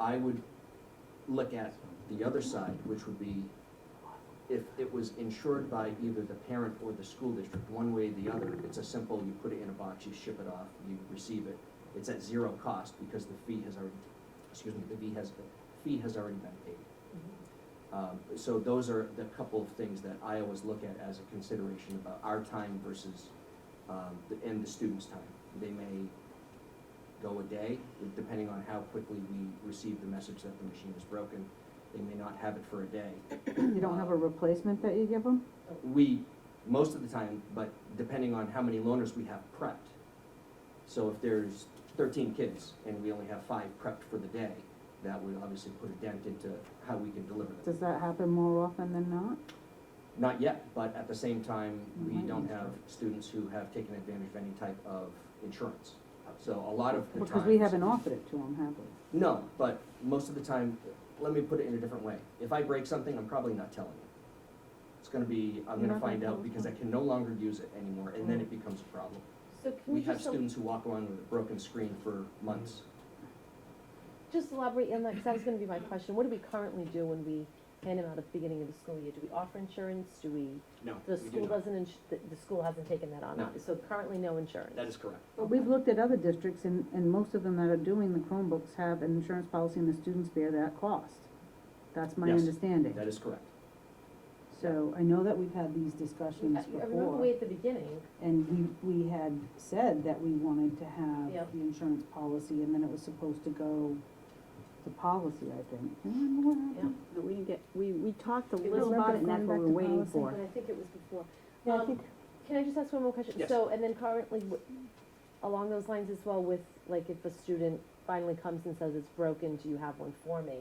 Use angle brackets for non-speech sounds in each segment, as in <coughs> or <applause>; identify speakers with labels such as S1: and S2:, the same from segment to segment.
S1: I would look at the other side, which would be if it was insured by either the parent or the school district, one way or the other, it's a simple, you put it in a box, you ship it off, you receive it. It's at zero cost because the fee has already, excuse me, the fee has, the fee has already been paid. Um, so those are the couple of things that I always look at as a consideration about our time versus, um, the, and the student's time. They may go a day, depending on how quickly we receive the message that the machine is broken. They may not have it for a day.
S2: <coughs> You don't have a replacement that you give them?
S1: We, most of the time, but depending on how many loaners we have prepped. So if there's thirteen kids and we only have five prepped for the day, that would obviously put a dent into how we can deliver them.
S2: Does that happen more often than not?
S1: Not yet, but at the same time, we
S2: Mhm.
S1: don't have students who have taken advantage of any type of insurance. So a lot of the times.
S2: Because we haven't offered it to them, have we?
S1: No, but most of the time, let me put it in a different way. If I break something, I'm probably not telling you. It's gonna be, I'm gonna
S2: You're not gonna
S1: find
S2: tell
S1: out
S2: us.
S1: because I can no longer use it anymore, and then it becomes a problem.
S3: So can
S1: We
S3: we
S1: have
S3: just, el-
S1: students who walk around with a broken screen for months.
S3: just elaborate on that, because that was gonna be my question, what do we currently do when we hand them out at the beginning of the school year? Do we offer insurance, do we,
S1: No,
S3: the
S1: we do
S3: school
S1: not.
S3: doesn't, ins- the, the school hasn't taken that on,
S1: No.
S3: so currently no insurance?
S1: That is correct.
S2: But we've looked at other districts and, and most of them that are doing the Chromebooks have an insurance policy and the students bear that cost. That's my
S1: Yes.
S2: understanding.
S1: That is correct.
S2: So I know that we've had these
S3: I
S2: discussions
S3: I remember
S2: before
S3: way at the beginning,
S2: and we, we had said that we wanted to
S3: Yeah.
S2: have the insurance policy and then it was supposed to go to policy, I think. Do you remember what
S3: yeah,
S2: happened?
S4: But we didn't get, we, we talked a
S3: was
S4: little about it, and
S2: going
S4: that's what
S2: back
S4: we
S2: to
S4: were waiting
S2: policy,
S4: for.
S3: but I think it was before.
S2: Yeah, I
S3: Um,
S2: think-
S3: Can I just ask one more question?
S1: Yes.
S3: So, and then currently, w- along those lines as well with, like, if a student finally comes and says it's broken, do you have one for me?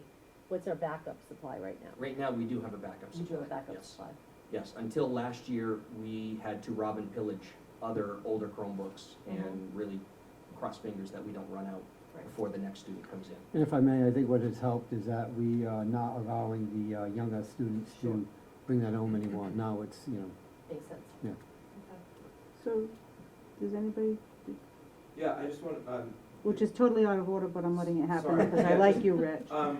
S3: What's our backup supply right now?
S1: Right now, we do have a backup
S3: We
S1: supply.
S3: do have a backup
S1: yes.
S3: supply.
S1: Yes, until last year, we had to rob and pillage other older Chromebooks
S2: Mm-hmm.
S1: and really cross fingers that we don't run out
S3: Right.
S1: before the next student comes in.
S5: And if I may, I think what has helped is that we are not allowing the uh, younger students
S1: Sure.
S5: to bring that home anymore. Now it's, you know,
S3: Makes sense.
S5: Yeah.
S2: So, does anybody
S6: Yeah, I just want, um,
S2: Which is totally out of order, but I'm letting it happen
S6: Sorry.
S2: because I like you, Rich.
S6: <laughs>
S5: <laughs>
S6: um,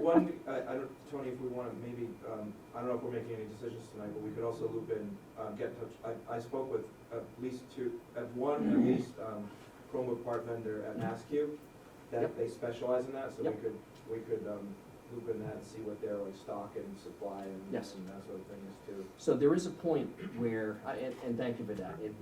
S6: one, I, I don't, Tony, if we wanna maybe, um, I don't know if we're making any decisions tonight, but we could also loop in, um, get in touch. I, I spoke with at least two, at one,
S5: Mm-hmm.
S6: at least, um, Chromebook part vendor at MassQ,
S1: Yep.
S6: that they specialize in that, so we
S1: Yep.
S6: could, we could, um, loop in that and see what their like stock and supply and, and that
S1: Yes.
S6: sort of thing is too.
S1: So there is a point where, I- and, and thank you for that. It-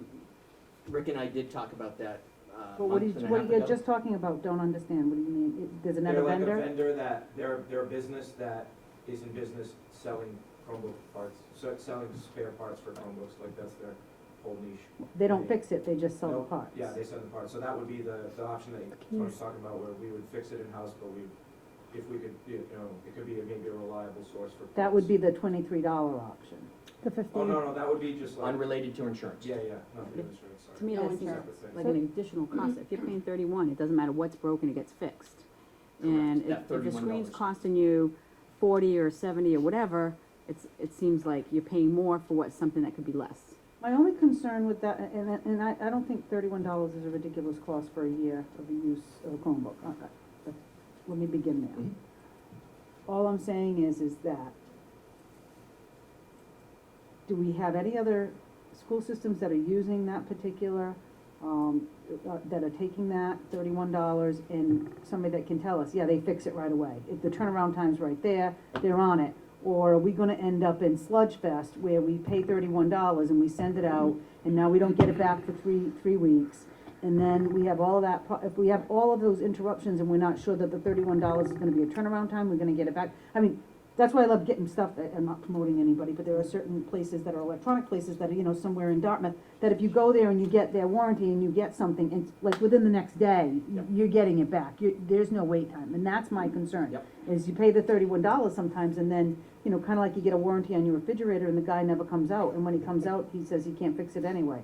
S1: Rick and I did talk about that uh,
S2: But what
S1: month
S2: you,
S1: and a
S2: what
S1: half
S2: you're
S1: ago.
S2: just talking about, don't understand, what do you mean, It- there's another
S6: They're like a
S2: vendor?
S6: vendor that, they're, they're a business that is in business selling Chromebook parts, so selling spare parts for Chromebooks, like that's their whole niche.
S2: They don't fix it, they just sell the
S6: Nope.
S2: parts.
S6: Yeah, they sell the parts, so that would be the, the option that
S4: you-
S6: Tony's talking about, where we would fix it in-house, but we, if we could, you know, it could be a- maybe a reliable source for.
S2: That would
S6: parts.
S2: be the twenty-three dollar option.
S4: The
S6: Oh,
S4: fifteen,
S6: no, no, that would be just like,
S1: Unrelated to insurance.
S6: yeah, yeah, not the insurance, sorry.
S4: to me,
S3: No
S4: that's
S3: insurance.
S6: Separate thing.
S4: like an additional cost, if you're paying thirty-one, it doesn't matter what's broken, it gets fixed. And
S1: Correct.
S4: if,
S1: That
S4: if the screen's
S1: $31.
S4: costing you forty or seventy or whatever, it's, it seems like you're paying more for what, something that could be less.
S2: My only concern with that, and, and I, I don't think thirty-one dollars is a ridiculous cost for a year of the use of a Chromebook. Uh, uh, but Let me begin there.
S1: Mhm.
S2: All I'm saying is, is that, do we have any other school systems that are using that particular, um, uh, that are taking that thirty-one dollars and somebody that can tell us, yeah, they fix it right away. If the turnaround time's right there, they're on it. Or are we gonna end up in Sludge Fest where we pay thirty-one dollars and we send it out and now we don't get it back for three, three weeks? And then we have all that, pro- if we have all of those interruptions and we're not sure that the thirty-one dollars is gonna be a turnaround time, we're gonna get it back. I mean, that's why I love getting stuff, I- I'm not promoting anybody, but there are certain places that are electronic places that are, you know, somewhere in Dartmouth, that if you go there and you get their warranty and you get something, it's like within the next day,
S1: Yep.
S2: you're getting it back, you, there's no wait time, and that's my concern.
S1: Yep.
S2: Is you pay the thirty-one dollars sometimes, and then, you know, kinda like you get a warranty on your refrigerator, and the guy never comes out, and when he comes out, he says he can't fix it anyway.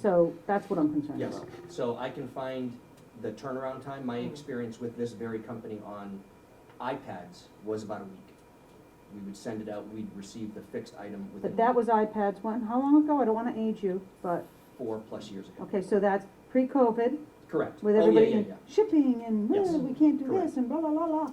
S2: So, that's what I'm concerned
S1: Yes,
S2: about.
S1: so I can find the turnaround time, my experience with this very company on iPads was about a week. We would send it out, we'd receive the fixed item
S2: But
S1: within
S2: that was iPads, when, how long ago, I don't wanna age you, but,
S1: four plus years ago.
S2: okay, so that's pre-COVID,
S1: Correct.
S2: with
S1: Oh, yeah,
S2: everybody
S1: yeah,
S2: in
S1: yeah.
S2: shipping and,
S1: Yes.
S2: "Well, we can't do
S1: Correct.
S2: this and blah, blah, blah, blah.